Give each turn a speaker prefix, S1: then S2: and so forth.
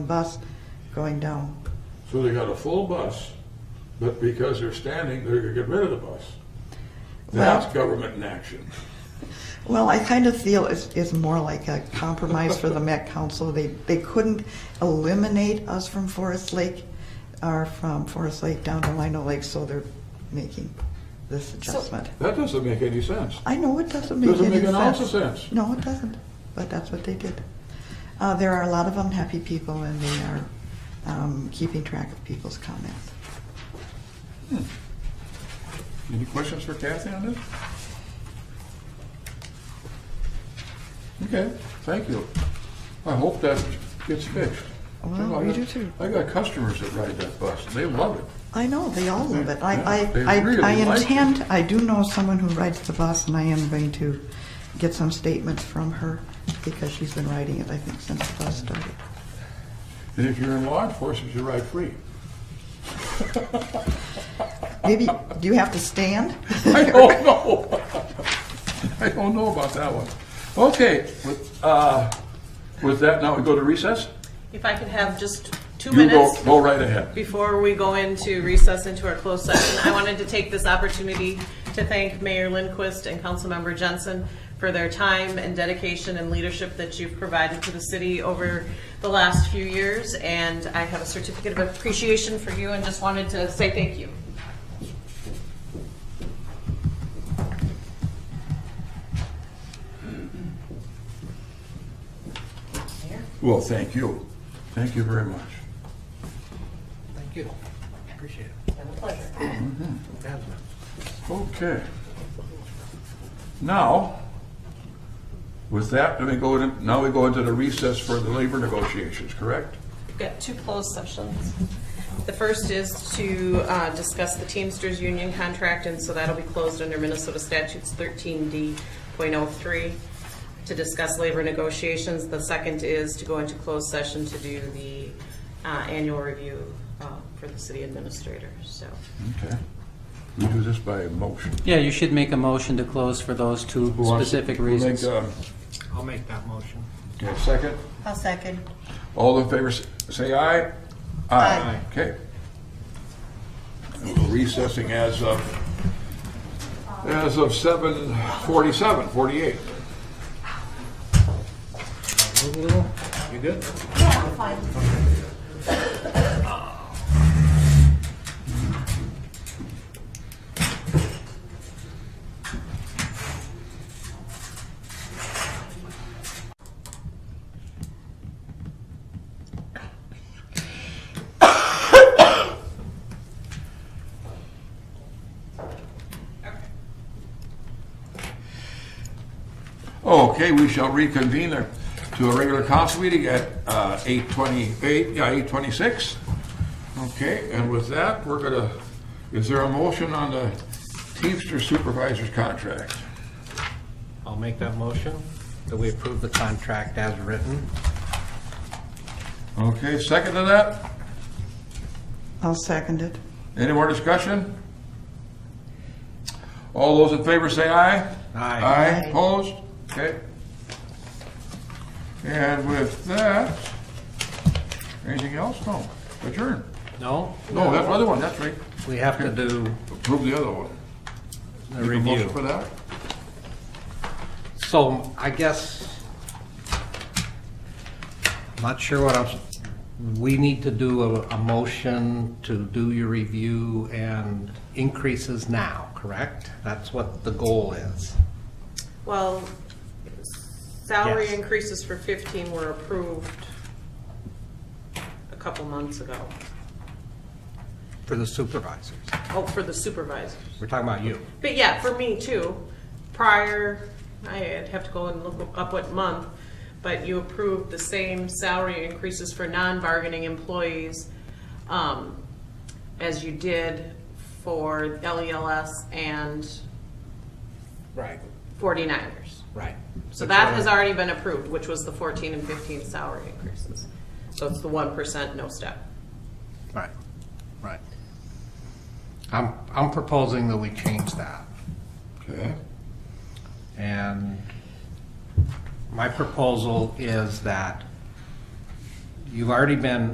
S1: bus going down.
S2: So they got a full bus, but because they're standing, they're gonna get rid of the bus. That's government in action.
S1: Well, I kind of feel it's, it's more like a compromise for the Met Council. They, they couldn't eliminate us from Forest Lake, or from Forest Lake down to Lino Lake, so they're making this adjustment.
S2: That doesn't make any sense.
S1: I know it doesn't make
S2: Doesn't
S1: any
S2: make
S1: sense.
S2: an ounce of sense.
S1: No, it doesn't, but that's what they did. Uh, there are a lot of unhappy people, and they are um, keeping track of people's comments.
S2: Any questions for Kathy on this? Okay, thank you. I hope that gets fixed.
S1: Well,
S2: You know, I
S1: we
S2: got-
S1: do too.
S2: I got customers that ride that bus, they love it.
S1: I know, they all love it. I, I,
S2: They
S1: I,
S2: really
S1: I
S2: like it.
S1: intend, I do know someone who rides the bus, and I am going to get some statements from her because she's been riding it, I think, since the bus started.
S2: And if you're in law enforcement, you ride free.
S1: Maybe, do you have to stand?
S2: I don't know. I don't know about that one. Okay, with, uh, with that, now we go to recess?
S3: If I could have just two
S2: You go,
S3: minutes
S2: go right ahead.
S3: before we go into recess into our closed session, I wanted to take this opportunity to thank Mayor Lindquist and Councilmember Jensen for their time and dedication and leadership that you've provided to the city over the last few years. And I have a certificate of appreciation for you and just wanted to say thank you.
S2: Well, thank you. Thank you very much.
S4: Thank you. Appreciate it. Mm-hmm.
S2: Okay. Now, with that, let me go in, now we go into the recess for the labor negotiations, correct?
S3: We've got two closed sessions. The first is to uh, discuss the Teamsters Union contract, and so that'll be closed under Minnesota statutes 13D.03 to discuss labor negotiations. The second is to go into closed session to do the uh, annual review uh, for the city administrator, so.
S2: Okay. We do this by motion.
S5: Yeah, you should make a motion to close for those two
S2: Who wants-
S5: specific
S2: who make,
S5: reasons.
S2: uh,
S4: I'll make that motion.
S2: Okay, second?
S1: I'll second.
S2: All in favor, s- say aye.
S1: Aye.
S2: Okay. Recessing as of, as of seven forty-seven, forty-eight.
S4: Move a little. You good?
S2: Okay, we shall reconvene our- to a regular council meeting at uh, 8:28, yeah, 8:26. Okay, and with that, we're gonna, is there a motion on the Teamster Supervisors contract?
S4: I'll make that motion that we approve the contract as written.
S2: Okay, second to that?
S1: I'll second it.
S2: Any more discussion? All those in favor say aye.
S4: Aye.
S2: Aye, opposed? Okay. And with that, anything else? No, adjourn.
S4: No,
S2: No, that's the other one, that's right.
S4: we have to do
S2: Approve the other one.
S4: the
S2: Make a motion For
S4: review.
S2: that?
S4: So I guess, not sure what else, we need to do a, a motion to do your review and increases now, correct? That's what the goal is.
S3: Well, salary
S4: Yes.
S3: increases for 15 were approved a couple months ago.
S4: For the supervisors.
S3: Oh, for the supervisors.
S4: We're talking about you.
S3: But yeah, for me too, prior, I'd have to go and look up what month, but you approved the same salary increases for non-bargaining employees um, as you did for LELS and
S4: Right,
S3: 49ers.
S4: right.
S3: So that has already been approved, which was the 14 and 15 salary increases. So it's the 1% no step.
S4: Right, right. I'm, I'm proposing that we change that.
S2: Okay.
S4: And my proposal is that you've already been